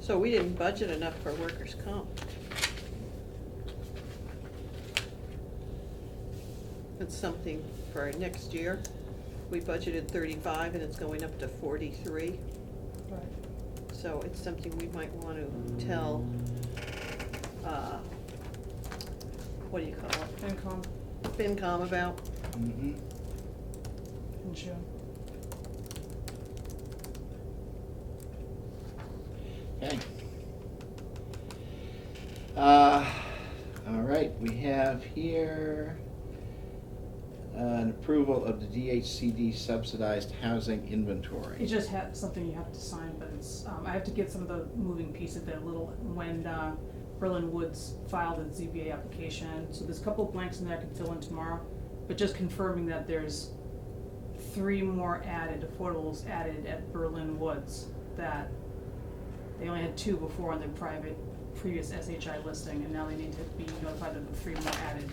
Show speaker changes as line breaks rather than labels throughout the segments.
So we didn't budget enough for workers' comp. That's something for our next year. We budgeted thirty-five and it's going up to forty-three, so it's something we might want to tell, uh, what do you call it?
FinCom
FinCom about.
Mm-hmm.
in June.
Okay. Uh, all right, we have here uh, an approval of the DHCD subsidized housing inventory.
It just had something you have to sign, but it's, um, I have to get some of the moving pieces there a little, when, uh, Berlin Woods filed its ZBA application, so there's a couple of blanks in there I can fill in tomorrow, but just confirming that there's three more added, affordables added at Berlin Woods, that they only had two before on their private, previous SHI listing, and now they need to be notified of the three more added.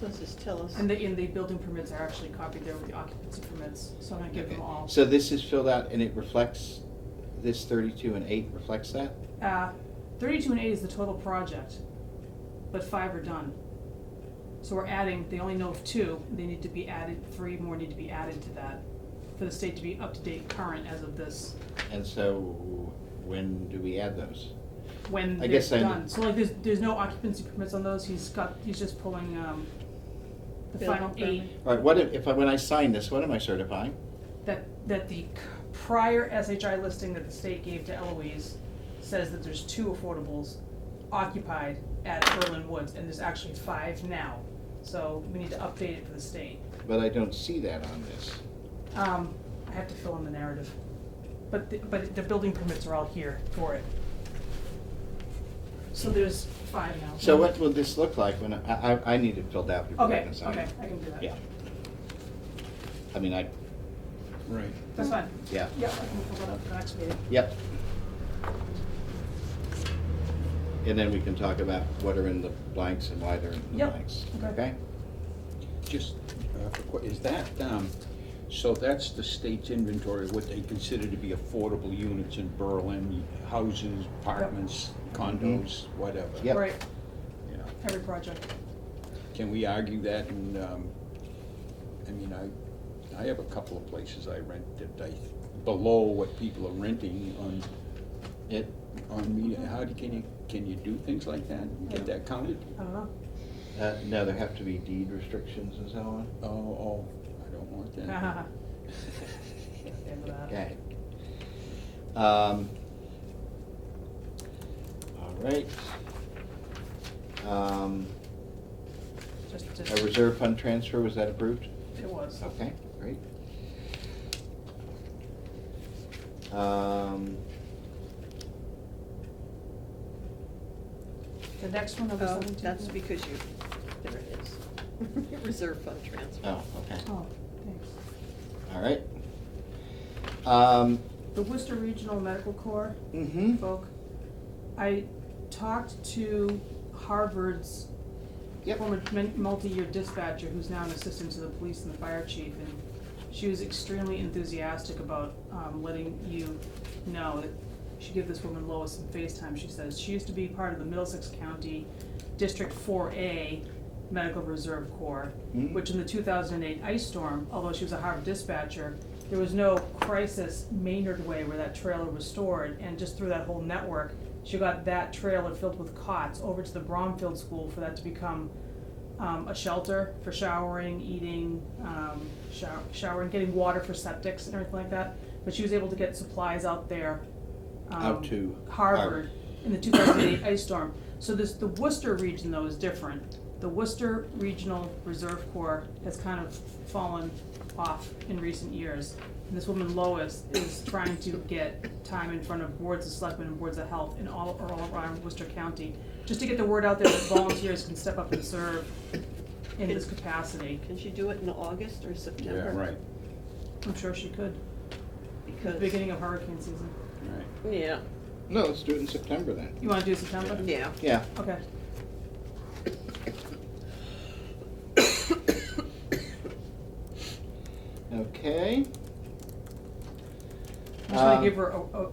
So just tell us.
And the, and the building permits are actually copied there with the occupancy permits, so I'm gonna give them
Okay.
all.
So this is filled out and it reflects, this thirty-two and eight reflects that?
Uh, thirty-two and eight is the total project, but five are done. So we're adding, they only know of two, they need to be added, three more need to be added to that, for the state to be up to date current as of this,
And so when do we add those?
when
I
they're
guess I-
done. So like, there's, there's no occupancy permits on those, he's got, he's just pulling, um, the
Building
final eight,
permit.
All right, what if, if I, when I sign this, what am I certifying?
that, that the c- prior SHI listing that the state gave to Eloise says that there's two affordables occupied at Berlin Woods, and there's actually five now. So we need to update it for the state.
But I don't see that on this.
Um, I have to fill in the narrative. But, the- but the building permits are all here for it. So there's five now.
So what will this look like when, I, I, I need it filled out before I
Okay,
can sign it.
okay, I can do that.
Yeah. I mean, I. Right.
That's fine.
Yeah,
Yeah, I can fill that up for the next meeting.
yep. And then we can talk about what are in the blanks and why they're in the
Yep,
blanks,
okay.
okay?
Just, uh, for que- is that, um, so that's the state's inventory, of what they consider to be affordable units in Berlin, houses, apartments, condos, whatever?
Yep.
Right,
You know,
every project.
Can we argue that and, um, I mean, I, I have a couple of places I rent that I, below what people are renting on,
It,
on me, how do, can you, can you do things like that? and Get
Yeah.
that counted?
I don't know.
uh, no, there have to be deed restrictions and so on.
Oh, oh, I don't want that.
End of that.
Okay. Um, all right. Um,
Just,
a
just,
reserve fund transfer, was that approved?
it was.
Okay, great. Um,
The next one, number
Oh,
seventeen.
that's because you, there it is. Reserve fund transfer.
oh, okay,
Oh, thanks.
all right. Um,
The Worcester Regional Medical Corps,
mhm,
folk, I talked to Harvard's
Yep.
former min- multi-year dispatcher, who's now an assistant to the police and the fire chief, and she was extremely enthusiastic about, um, letting you know that she gave this woman Lois some FaceTime, she says, she used to be part of the Middlesex County District four A Medical Reserve Corps,
Mm.
which in the two thousand and eight ice storm, although she was a Harvard dispatcher, there was no crisis Maynard way where that trailer was stored, and just through that whole network, she got that trailer filled with cots over to the Bromfield School for that to become um, a shelter for showering, eating, um, shower, showering, getting water for septics and everything like that. But she was able to get supplies out there. Um,
Out to Harvard.
Harvard in the two thousand eight ice storm. So this, the Worcester region though is different. The Worcester Regional Reserve Corps has kind of fallen off in recent years. And this woman Lois is trying to get time in front of boards of selectmen and boards of health in all, or all around Worcester County, just to get the word out there that volunteers can step up and serve in this capacity.
Can she do it in August or
Yeah,
September?
right,
I'm sure she could, at the
Because,
beginning of hurricane season.
right.
yeah,
no, let's do it in September then.
You wanna do September?
yeah.
Yeah,
Okay.
okay.
I'm just gonna
Um,
give her a, a, a